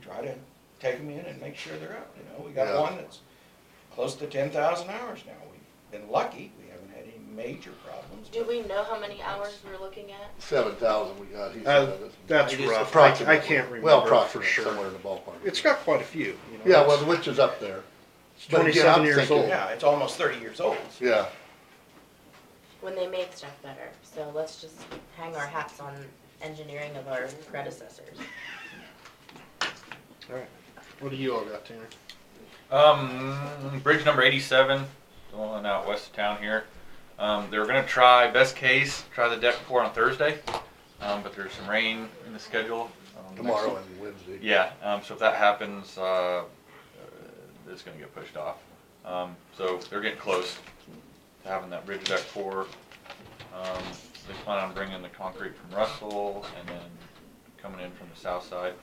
try to take them in and make sure they're up, you know? We got Yeah. one that's close to ten thousand hours now. We've been lucky, we haven't had any major problems. Do but- we know how many hours we're looking at? Seven thousand we got, he Uh, said. that's- That's It is rough. I, I approximately. can't remember Well, for approximately, somewhere sure. in the ballpark. It's got quite a few. You know, Yeah, it's- well, which is up there. it's but again, twenty-seven I'm years thinking- old. Yeah, it's almost thirty years old. Yeah, When they make stuff better, so let's just hang our hats on engineering of our predecessors. What do you all got, Tanner? Um, bridge number eighty-seven, the one out west of town here. Um, they're gonna try, best case, try the deck pour on Thursday, um, but there's some rain in the schedule. um, next- tomorrow and Wednesday. Yeah, um, so if that happens, uh, uh, it's gonna get pushed off. Um, so they're getting close to having that bridge deck pour. Um, they plan on bringing the concrete from Russell and then coming in from the south side.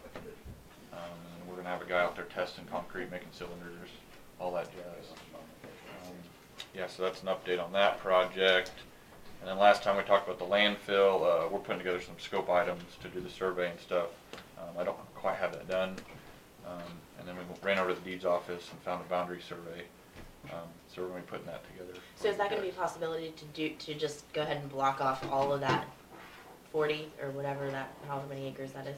Um, and we're gonna have a guy out there testing concrete, making cylinders, all that jazz. Um, Yeah, so that's an update on that project. And then last time we talked about the landfill, uh, we're putting together some scope items to do the survey and stuff. Um, I don't quite have that done. Um, and then we ran over to the deeds office and found a boundary survey. Um, so we're gonna be putting that together. So is that gonna be a possibility to do, to just go ahead and block off all of that forty or whatever that, however many acres that is?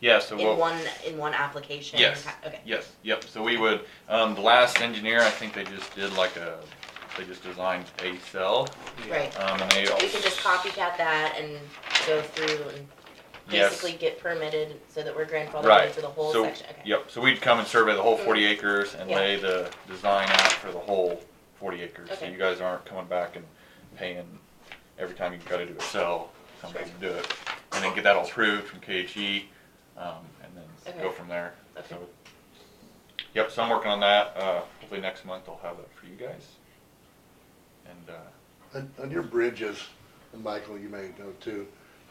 Yeah, so In Uh, we'll, one, in one application? Yes. Ha- Okay. yes, yep, so we would, um, the last engineer, I think they just did like a, they just designed a cell. Right. Um, and they. We can just copycat that and go through and Yes. basically get permitted so that we're grandfathered Right. in for the whole So- section, okay? Yep, so we'd come and survey the whole Mm. forty acres and Yeah. lay the design out for the whole forty acres. So Okay. you guys aren't coming back and paying every time you've gotta do a cell, come back Sure. and do it. And then get that all approved from KHE, um, and then go Okay. from there. Okay. So, Yep, so I'm working on that, uh, hopefully next month I'll have that for you guys. And, uh, And, and your bridges, and Michael, you may know too,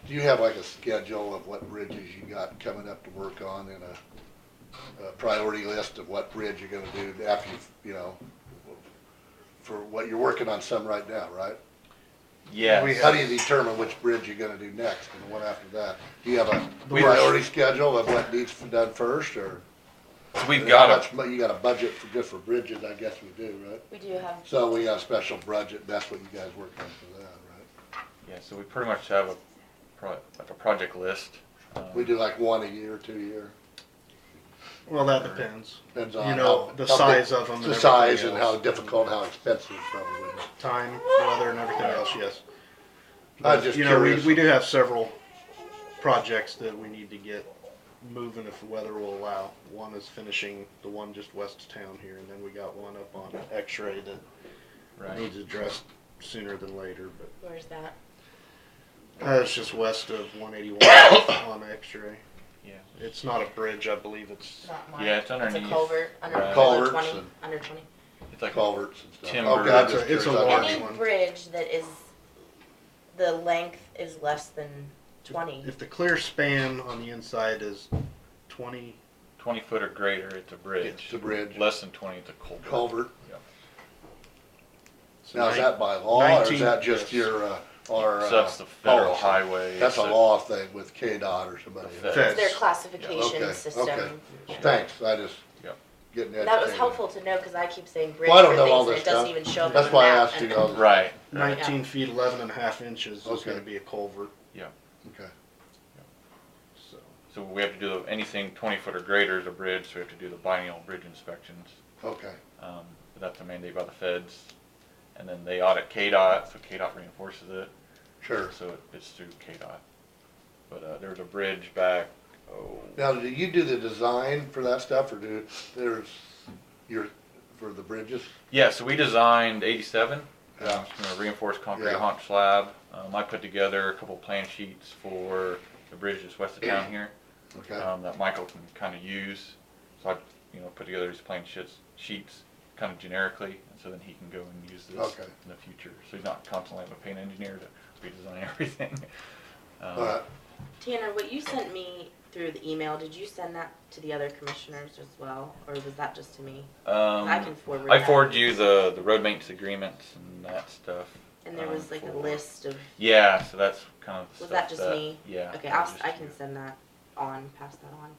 do you have like a schedule of what bridges you got coming up to work on and a, a priority list of what bridge you're gonna do after you, you know, for what you're working on some right now, right? yeah, We How do you determine which bridge you're gonna do next and the one after that? Do you have a We've- priority schedule of what needs to be done first or? so we've how got a much mo- You got a budget for just for bridges, I guess we do, right? We do have So we got a special budget, that's what you guys work on for that, right? Yeah, so we pretty much have a, pro- like a project list. um, We do like one a year, two a year, Well, that depends. depends You on. know, how- the how size big- of 'em and The size everything and how else. difficult, how expensive probably. Time, weather, and everything else. Yes. I was just you know, we, curious. we do have several projects that we need to get moving if the weather will allow. One is finishing the one just west of town here, and then we got one up on X-ray that Right. needs addressed sooner than later. But Where's that? uh, it's just west of 181 on X-ray. Yeah. It's not a bridge, I believe. It's Not mine. Yeah, it's underneath. It's a culvert, under, Right. under Culverts twenty, and- under twenty. It's like Culverts and stuff. Timber. Okay, I'm just It's a- it's curious. a I large didn't- Any one. bridge that is, the length is less than twenty. if the clear span on the inside is 20 twenty foot or greater, it's a It's bridge. a bridge, Less than twenty, it's a culvert. culvert. so Now, is nine- that by law or is 19 that just yes. your, uh, our? So uh, that's the federal policy? highway. That's a so- law thing with KDOT or somebody. The fed- Their Feds. Yeah, okay, classification okay. system. yeah. Thanks, I just Yep. getting educated. That was helpful to know, cause I keep saying bridge Well, I for don't know all things and this it doesn't stuff. even show up on That's the why I map. asked and- you all this. Right. 19 feet 11 and a half inches is Okay. going to be a culvert. Okay, So So we have to do the- anything twenty foot or greater is a bridge, so we have to do the biennial bridge inspections. okay. Um, but that's a mandate by the feds. And then they audit KDOT, so KDOT reinforces it. Sure. So it- it's through KDOT. But, uh, there was a bridge back, oh, Now, do you do the design for that stuff or do, there's your, for the bridges? Yeah, so we designed eighty-seven, Yeah. um, you know, reinforced concrete Yeah. haunch slab. Um, I put together a couple plan sheets for the bridge just west of town here, Okay, um, that Michael can kinda use. So I, you know, put together these plan sheets, sheets kinda generically, and so then he can go and use this Okay. in the future. So he's not constantly having a paint engineer to redesign everything. Um, all right. Tanner, what you sent me through the email, did you send that to the other commissioners as well, or was that just to me? Um, I can forward I that. forwarded you the, the road maintenance agreements and that stuff. And there um, was like a for- list of, Yeah, so that's kind of. was stuff that just me? Yeah. Okay, that I'll, was just I you. can send that on, pass that on.